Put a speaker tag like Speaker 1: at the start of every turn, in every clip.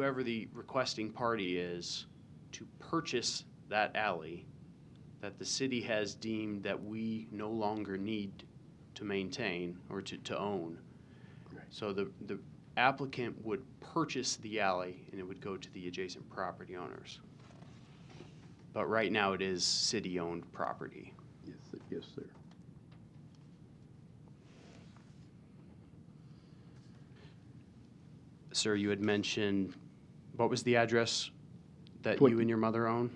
Speaker 1: whoever the requesting party is to purchase that alley that the city has deemed that we no longer need to maintain or to, to own.
Speaker 2: Right.
Speaker 1: So the, the applicant would purchase the alley and it would go to the adjacent property owners. But right now it is city-owned property.
Speaker 2: Yes, sir. yes, sir.
Speaker 1: Sir, you had mentioned, what was the address that you
Speaker 2: Twenty.
Speaker 1: and your mother own?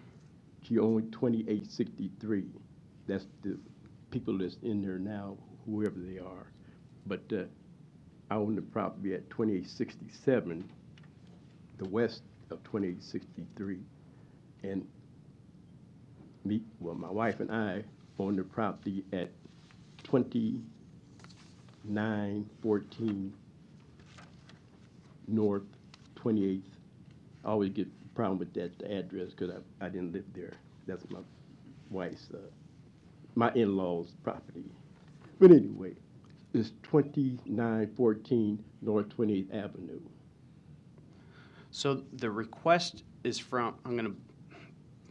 Speaker 2: She owned twenty-eight sixty-three. That's the people that's in there now, whoever they are. But uh, I own the property at twenty-eight sixty-seven, the west of twenty-eight sixty-three. And me, well, my wife and I own the property at twenty-nine fourteen north twenty-eighth I always get a problem with that address because I, I didn't live there. That's my wife's, uh, my in-law's property. But anyway, it's twenty-nine fourteen North Twenty-Eighth Avenue.
Speaker 1: So the request is from, I'm gonna,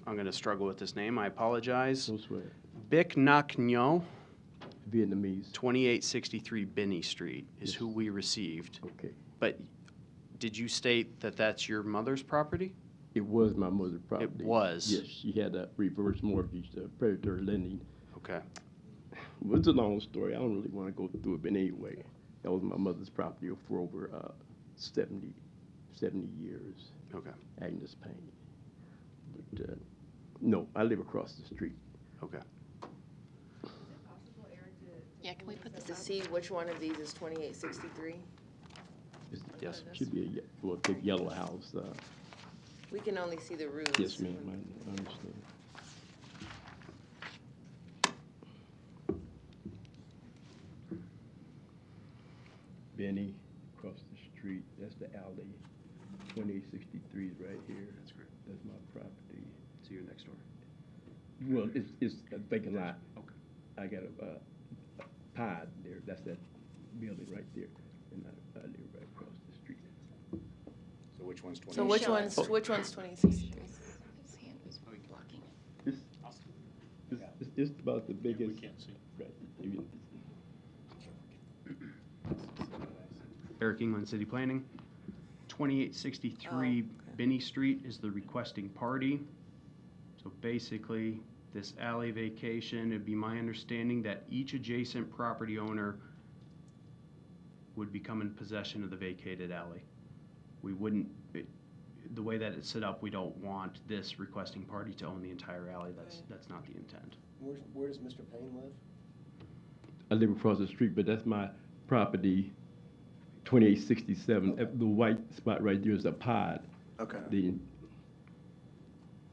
Speaker 1: I'm gonna struggle with this name, I apologize.
Speaker 2: No swear,
Speaker 1: Bic Nak Nyo,
Speaker 2: Vietnamese.
Speaker 1: twenty-eight sixty-three Binney Street is
Speaker 2: Yes.
Speaker 1: who we received.
Speaker 2: Okay.
Speaker 1: But did you state that that's your mother's property?
Speaker 2: It was my mother's property.
Speaker 1: was.
Speaker 2: Yes, she had a reverse mortgage, uh, predatory lending.
Speaker 1: Okay.
Speaker 2: It was a long story. I don't really want to go through it, but anyway, that was my mother's property for over, uh, 70 70 years.
Speaker 1: Okay.
Speaker 2: Agnes Payne. But, uh, no, I live across the street.
Speaker 1: Okay.
Speaker 3: Yeah, can we put this
Speaker 4: To see which one of these is twenty-eight sixty-three?
Speaker 2: It's-
Speaker 1: Yes.
Speaker 2: Should be a, ye- well, big yellow house, uh,
Speaker 4: We can only see the roofs.
Speaker 2: yes, ma'am, I- I understand. Benny, across the street, that's the alley, twenty-eight sixty-three is right here,
Speaker 1: That's great.
Speaker 2: that's my property.
Speaker 1: So you're next door.
Speaker 2: Well, it's, it's a vacant lot.
Speaker 1: Okay.
Speaker 2: I got a, uh, a pod there, that's that building right there, and I, I live right across the street.
Speaker 5: So which one's twenty?
Speaker 4: So which one's, which one's twenty-eight sixty-three?
Speaker 3: His hand was blocking it.
Speaker 2: It's, it's, it's just about the biggest. Right. You-
Speaker 1: Eric England, City Planning. Twenty-eight sixty-three
Speaker 4: Oh, okay.
Speaker 1: Binney Street is the requesting party. So basically, this alley vacation, it'd be my understanding that each adjacent property owner would become in possession of the vacated alley. We wouldn't, it- the way that it's set up, we don't want this requesting party to own the entire alley. That's,
Speaker 4: Right.
Speaker 1: that's not the intent.
Speaker 6: Where, where does Mr. Payne live?
Speaker 2: I live across the street, but that's my property, twenty-eight sixty-seven, the white spot right there is a pod,
Speaker 6: Okay.
Speaker 2: the,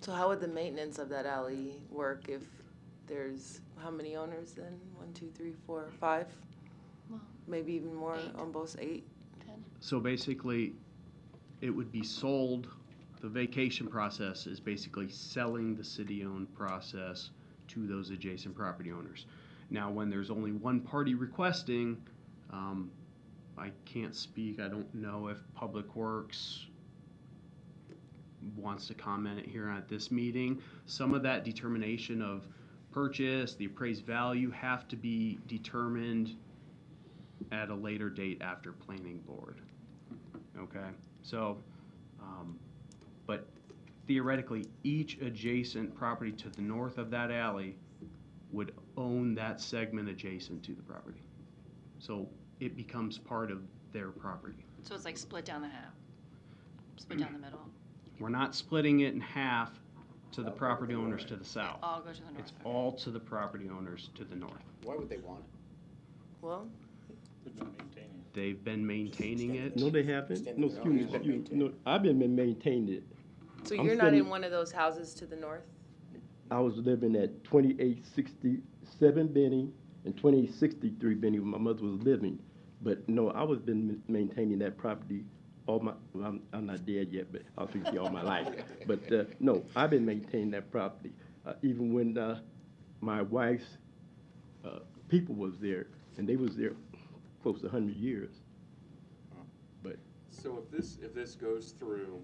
Speaker 4: So how would the maintenance of that alley work if there's, how many owners then? One, two, three, four, five?
Speaker 3: Well-
Speaker 4: Maybe even more
Speaker 3: Eight.
Speaker 4: on both eight?
Speaker 1: So basically, it would be sold, the vacation process is basically selling the city-owned process to those adjacent property owners. Now, when there's only one party requesting, um, I can't speak, I don't know if Public Works wants to comment here at this meeting. Some of that determination of purchase, the appraised value have to be determined at a later date after planning board. Okay, so, um, but theoretically, each adjacent property to the north of that alley would own that segment adjacent to the property. So it becomes part of their property.
Speaker 3: So it's like split down the half, split down the middle,
Speaker 1: We're not splitting it in half to the property owners to the south.
Speaker 3: all go to the north.
Speaker 1: It's
Speaker 3: okay.
Speaker 1: all to the property owners to the north.
Speaker 5: Why would they want it?
Speaker 4: Well,
Speaker 1: They've been maintaining it.
Speaker 2: no, they haven't, no, excuse me, excuse me, no, I've been been maintaining it.
Speaker 4: so
Speaker 2: I'm
Speaker 4: you're not in
Speaker 2: sitting-
Speaker 4: one of those houses to the north?
Speaker 2: I was living at twenty-eight sixty-seven Benny and twenty-eight sixty-three Benny where my mother was living. But no, I was been ma- maintaining that property all my, well, I'm, I'm not dead yet, but I'll speak to you all my life. But, uh, no, I've been maintaining that property, uh, even when, uh, my wife's, uh, people was there, and they was there close to hundred years. But
Speaker 7: So if this, if this goes through,